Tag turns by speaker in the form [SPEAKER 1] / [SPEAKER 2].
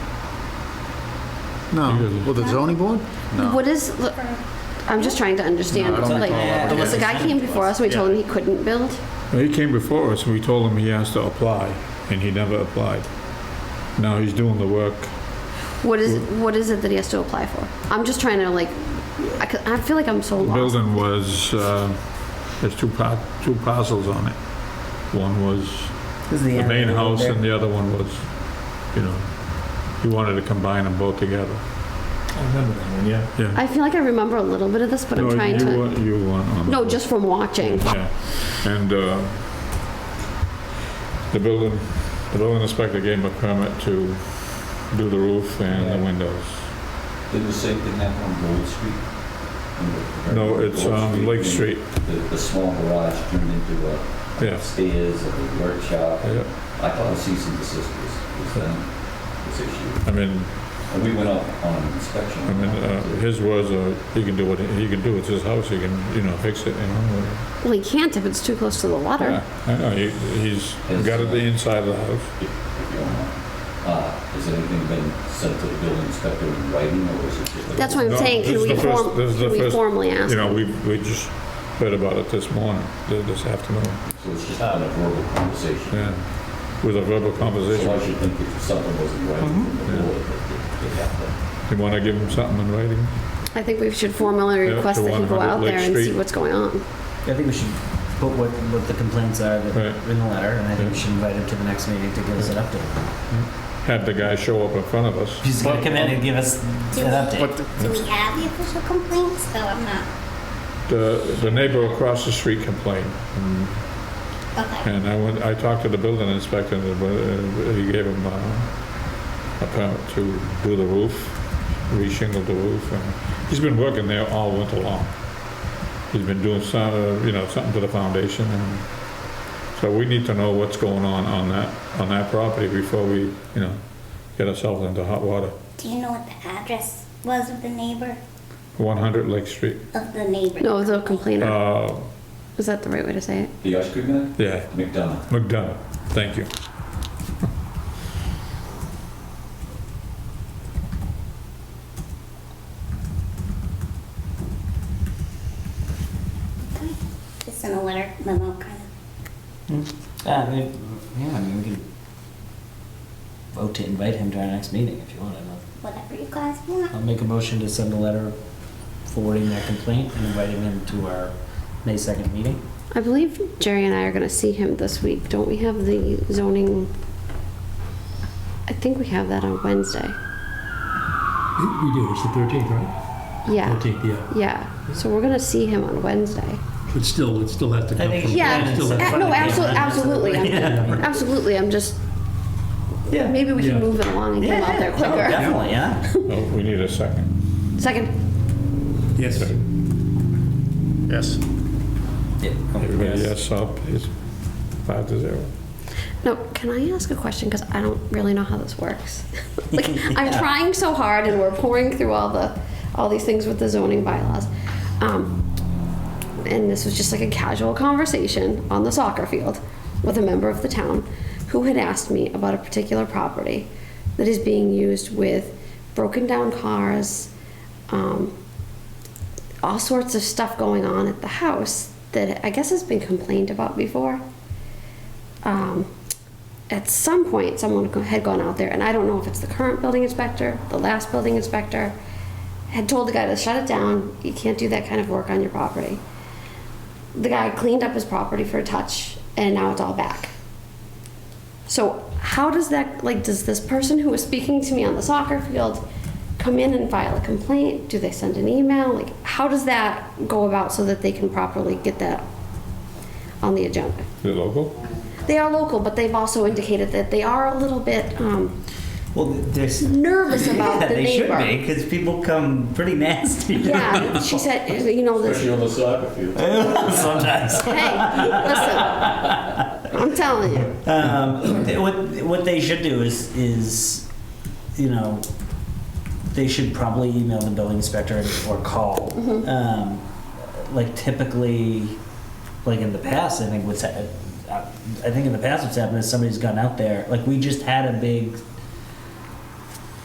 [SPEAKER 1] No, well, the zoning board? No.
[SPEAKER 2] What is, look, I'm just trying to understand.
[SPEAKER 1] No, I don't
[SPEAKER 2] Like,
[SPEAKER 1] recall ever
[SPEAKER 2] the guy came before us and we told him he couldn't build?
[SPEAKER 3] Well, He came before us, and we told him he has to apply, and he never applied. Now he's doing the work.
[SPEAKER 2] What is,
[SPEAKER 3] Mm-hmm.
[SPEAKER 2] what is it that he has to apply for? I'm just trying to like, I, c- I feel like I'm so
[SPEAKER 3] The
[SPEAKER 2] lost.
[SPEAKER 3] building was, uh, there's two par, two parcels on it. One was
[SPEAKER 4] This is
[SPEAKER 3] the
[SPEAKER 4] end
[SPEAKER 3] main
[SPEAKER 4] of
[SPEAKER 3] house,
[SPEAKER 4] there.
[SPEAKER 3] and the other one was, you know, he wanted to combine them both together.
[SPEAKER 5] I remember that one, yeah.
[SPEAKER 3] Yeah.
[SPEAKER 2] I feel like I remember a little bit of this, but I'm
[SPEAKER 3] No,
[SPEAKER 2] trying
[SPEAKER 3] you
[SPEAKER 2] to,
[SPEAKER 3] weren't- You weren't on the
[SPEAKER 2] no,
[SPEAKER 3] board.
[SPEAKER 2] just from watching.
[SPEAKER 3] Yeah, and uh, the building, the building inspector gave him a permit to do the roof and the windows.
[SPEAKER 6] Did the same thing happen on Gold Street? On the-
[SPEAKER 3] No, it's
[SPEAKER 6] Gold
[SPEAKER 3] on Lake
[SPEAKER 6] when
[SPEAKER 3] Street,
[SPEAKER 6] The, the small garage turned into a
[SPEAKER 3] yeah.
[SPEAKER 6] stairs, a workshop.
[SPEAKER 3] Yeah.
[SPEAKER 6] I thought a cease and desist was, was done, this issue.
[SPEAKER 3] I mean,
[SPEAKER 6] And we went up on an inspection.
[SPEAKER 3] I mean, uh, his words are, he can do what, he can do, it's his house, he can, you know, fix it, you know.
[SPEAKER 2] Well, he can't if it's too close to the water.
[SPEAKER 3] Yeah, I know, he- he's got it the inside of the house.
[SPEAKER 6] If if you don't mind. Uh, has anything been sent to the building inspector in writing or is it just? like-
[SPEAKER 2] That's what I'm
[SPEAKER 3] No,
[SPEAKER 2] saying,
[SPEAKER 3] this
[SPEAKER 2] can
[SPEAKER 3] is
[SPEAKER 2] we
[SPEAKER 3] the first-
[SPEAKER 2] form,
[SPEAKER 3] this is the
[SPEAKER 2] can we
[SPEAKER 3] first-
[SPEAKER 2] formally ask?
[SPEAKER 3] You know, we, we just heard about it this morning, th- this afternoon,
[SPEAKER 6] So it's just not a verbal conversation.
[SPEAKER 3] yeah, with a verbal
[SPEAKER 6] So I
[SPEAKER 3] conversation.
[SPEAKER 6] should think if something wasn't right from the
[SPEAKER 3] Yeah.
[SPEAKER 6] board, that they they have to.
[SPEAKER 3] You wanna give him something in writing?
[SPEAKER 2] I think we should formally
[SPEAKER 3] Yeah,
[SPEAKER 2] request
[SPEAKER 3] to
[SPEAKER 2] that he go
[SPEAKER 3] 100
[SPEAKER 2] out there
[SPEAKER 3] Lake
[SPEAKER 2] and see
[SPEAKER 3] Street.
[SPEAKER 2] what's going on.
[SPEAKER 4] I think we should put what, what the complaints are
[SPEAKER 3] Right.
[SPEAKER 4] that, in the letter, and I think we
[SPEAKER 3] Yeah.
[SPEAKER 4] should invite him to the next meeting to give us an update.
[SPEAKER 3] Had the guy show up in front of us.
[SPEAKER 4] He's gonna come in and give us
[SPEAKER 7] Do
[SPEAKER 4] an
[SPEAKER 7] we-
[SPEAKER 4] update.
[SPEAKER 1] But
[SPEAKER 7] Do we have the official complaints? Though I'm not,
[SPEAKER 3] The, the neighbor across the street complained. and-
[SPEAKER 7] okay.
[SPEAKER 3] And I went, I talked to the building inspector, and uh, he gave him uh, a permit to do the roof, re-shingle the roof. and He's been working there all winter long. He's been doing some, uh, you know, something to the foundation. and So we need to know what's going on on that, on that property before we, you know, get ourselves into hot water.
[SPEAKER 7] Do you know what the address was of the neighbor,
[SPEAKER 3] 100 Lake Street.
[SPEAKER 7] of the neighbor?
[SPEAKER 2] No, the complainer,
[SPEAKER 3] Uh,
[SPEAKER 2] is that the right way to say it?
[SPEAKER 6] The ice cream man?
[SPEAKER 3] Yeah,
[SPEAKER 6] McDonough.
[SPEAKER 3] McDonough, thank you.
[SPEAKER 7] Just in a letter memo, kind of.
[SPEAKER 4] Yeah, I mean, yeah, I mean, we can vote to invite him to our next meeting if you want. I'll-
[SPEAKER 7] Whatever you guys want.
[SPEAKER 4] I'll make a motion to send a letter forwarding that complaint and inviting him to our May second meeting.
[SPEAKER 2] I believe Jerry and I are gonna see him this week. Don't we have the zoning? I think we have that on Wednesday.
[SPEAKER 5] We do, it's the 13th, right?
[SPEAKER 2] Yeah,
[SPEAKER 5] 13th, yeah.
[SPEAKER 2] yeah. So we're gonna see him on Wednesday.
[SPEAKER 5] But still, it still has to come
[SPEAKER 4] think
[SPEAKER 5] from.
[SPEAKER 4] he
[SPEAKER 2] Yeah,
[SPEAKER 4] Yeah,
[SPEAKER 5] it still has to
[SPEAKER 4] it's-
[SPEAKER 2] uh,
[SPEAKER 5] come
[SPEAKER 2] no,
[SPEAKER 5] from-
[SPEAKER 2] absolutely, absolutely, I'm-
[SPEAKER 5] Yeah.
[SPEAKER 2] absolutely. I'm just, maybe we
[SPEAKER 5] Yeah.
[SPEAKER 2] can move it along and get him out there
[SPEAKER 4] no,
[SPEAKER 2] quicker.
[SPEAKER 4] Definitely, yeah.
[SPEAKER 3] Oh, We need a second.
[SPEAKER 2] Second,
[SPEAKER 5] Yes.
[SPEAKER 1] Yes.
[SPEAKER 3] Everybody yes, so please, five to zero.
[SPEAKER 2] no, can I ask a question? Cause I don't really know how this works. Like, I'm
[SPEAKER 4] Yeah.
[SPEAKER 2] trying so hard and we're pouring through all the, all these things with the zoning bylaws. Um, and this was just like a casual conversation on the soccer field with a member of the town who had asked me about a particular property that is being used with broken down cars, um, all sorts of stuff going on at the house that I guess has been complained about before. Um, at some point, someone go- had gone out there, and I don't know if it's the current building inspector, the last building inspector, had told the guy to shut it down. You can't do that kind of work on your property. The guy cleaned up his property for a touch, and now it's all back. So how does that like does this person who was speaking to me on the soccer field come in and file a complaint? Do they send an email? Like how does that go about so that they can properly get that on the agenda?
[SPEAKER 3] Is it local?
[SPEAKER 2] They are local, but they've also indicated that they are a little bit um,
[SPEAKER 4] Well, there's.
[SPEAKER 2] nervous about the
[SPEAKER 4] they
[SPEAKER 2] neighbor.
[SPEAKER 4] should be because people come pretty nasty.
[SPEAKER 2] Yeah, she said, you know, this,
[SPEAKER 6] Especially on the soccer field.
[SPEAKER 4] sometimes.
[SPEAKER 2] hey, listen, I'm telling you.
[SPEAKER 4] Um, th- what what they should do is is, you know, they should probably email the building inspector or call. Um, like typically, like in the past, I think what's hap- I I think in the past what's happened is somebody's gone out there. Like we just had a big